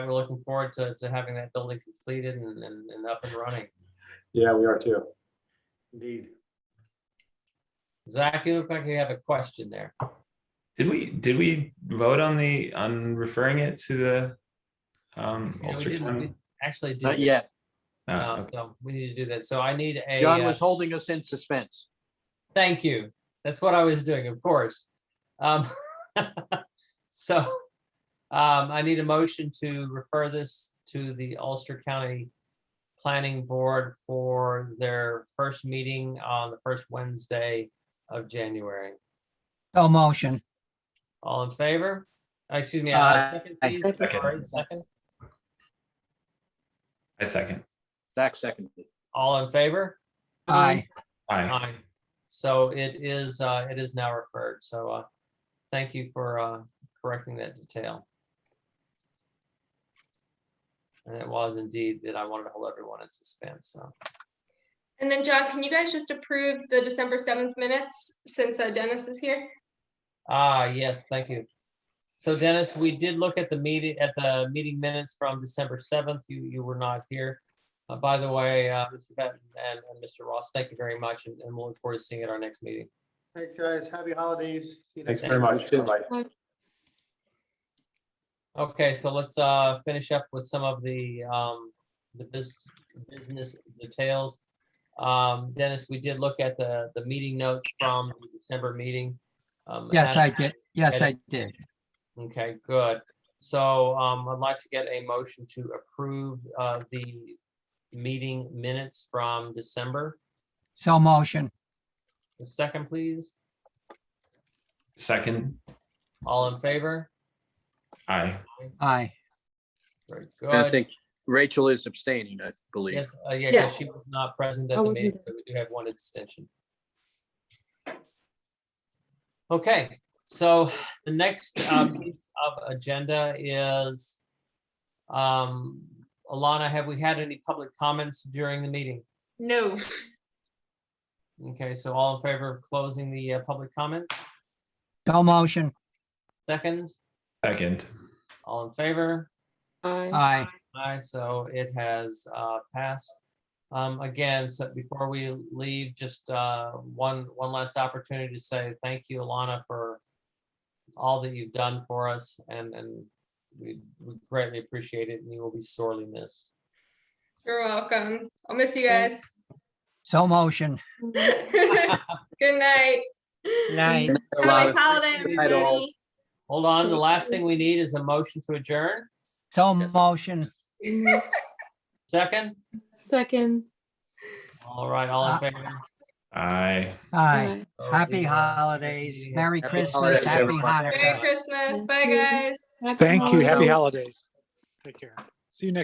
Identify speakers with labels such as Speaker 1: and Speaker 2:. Speaker 1: we're looking forward to, to having that building completed and, and, and up and running.
Speaker 2: Yeah, we are too.
Speaker 3: Indeed.
Speaker 1: Zach, you look like you have a question there.
Speaker 4: Did we, did we vote on the, on referring it to the? Um,
Speaker 1: Yeah, we
Speaker 4: Ulster
Speaker 1: didn't-
Speaker 4: County?
Speaker 1: we Actually, did
Speaker 5: Not yet.
Speaker 4: Oh,
Speaker 1: Uh,
Speaker 4: okay.
Speaker 1: so we need to do that. So I need a,
Speaker 5: John
Speaker 1: uh,
Speaker 5: was holding us in suspense.
Speaker 1: thank you. That's what I was doing, of course. Um, so, um, I need a motion to refer this to the Ulster County Planning Board for their first meeting on the first Wednesday of January.
Speaker 6: No motion.
Speaker 1: All in favor? Uh, Excuse me.
Speaker 5: Aye.
Speaker 1: uh, second, please.
Speaker 4: Second.
Speaker 1: Sorry, Second.
Speaker 4: I second.
Speaker 5: Zach seconded.
Speaker 1: All in favor?
Speaker 6: Aye.
Speaker 4: Aye.
Speaker 1: Aye. So it is, uh, it is now referred. So, uh, thank you for, uh, correcting that detail. And it was indeed that I wanted to hold everyone in suspense. So
Speaker 7: And then John, can you guys just approve the December seventh minutes since uh, Dennis is here?
Speaker 1: Ah, yes, thank you. So Dennis, we did look at the meeting, at the meeting minutes from December seventh. You, you were not here. Uh, by the way, uh, Mr. Benton and, and Mr. Ross, thank you very much and, and we'll look forward to seeing you at our next meeting.
Speaker 3: Thanks, guys. Happy holidays. See you
Speaker 2: Thanks
Speaker 3: next
Speaker 2: very
Speaker 3: time.
Speaker 2: much. Bye.
Speaker 1: Okay, so let's, uh, finish up with some of the, um, the bus- business details. Um, Dennis, we did look at the, the meeting notes from the December meeting. Um,
Speaker 6: Yes,
Speaker 1: as-
Speaker 6: I did. Yes, I did.
Speaker 1: Okay, good. So um, I'd like to get a motion to approve uh, the meeting minutes from December.
Speaker 6: So motion.
Speaker 1: A second, please.
Speaker 4: Second,
Speaker 1: All in favor?
Speaker 4: aye.
Speaker 6: Aye.
Speaker 1: Very
Speaker 5: And I
Speaker 1: good.
Speaker 5: think Rachel is abstaining, I believe.
Speaker 1: Yes, uh, yeah, 'cause
Speaker 7: Yes.
Speaker 1: she was not present
Speaker 7: I
Speaker 1: at the
Speaker 7: wasn't
Speaker 1: meeting, so we do have one extension. Okay, so the next uh, piece of agenda is um, Alana, have we had any public comments during the meeting?
Speaker 7: No.
Speaker 1: Okay, so all in favor of closing the uh, public comments?
Speaker 6: So motion.
Speaker 1: Second,
Speaker 4: Second,
Speaker 1: all in favor?
Speaker 5: Uh.
Speaker 6: Aye.
Speaker 1: Aye, so it has uh, passed. Um, Again, so before we leave, just uh, one, one last opportunity to say thank you, Alana, for all that you've done for us and, and we we greatly appreciate it and you will be sorely missed.
Speaker 7: You're welcome. I'll miss you guys.
Speaker 6: So motion.
Speaker 7: Good night.
Speaker 6: Night.
Speaker 7: Have a nice holiday,
Speaker 5: Night all.
Speaker 7: everybody.
Speaker 1: Hold on, the last thing we need is a motion to adjourn.
Speaker 6: So motion.
Speaker 1: Second,
Speaker 8: Second.
Speaker 1: all right, all in favor?
Speaker 4: aye.
Speaker 6: Aye.
Speaker 1: So it
Speaker 6: Happy
Speaker 1: is-
Speaker 6: holidays. Merry
Speaker 5: Happy
Speaker 6: Christmas.
Speaker 5: holidays,
Speaker 6: Happy
Speaker 5: everyone.
Speaker 6: Hanukkah.
Speaker 7: Merry Christmas. Bye,
Speaker 8: you.
Speaker 7: guys.
Speaker 8: Happy
Speaker 1: um,
Speaker 9: Thank you.
Speaker 8: holidays.
Speaker 9: Happy holidays. Take care. See you next.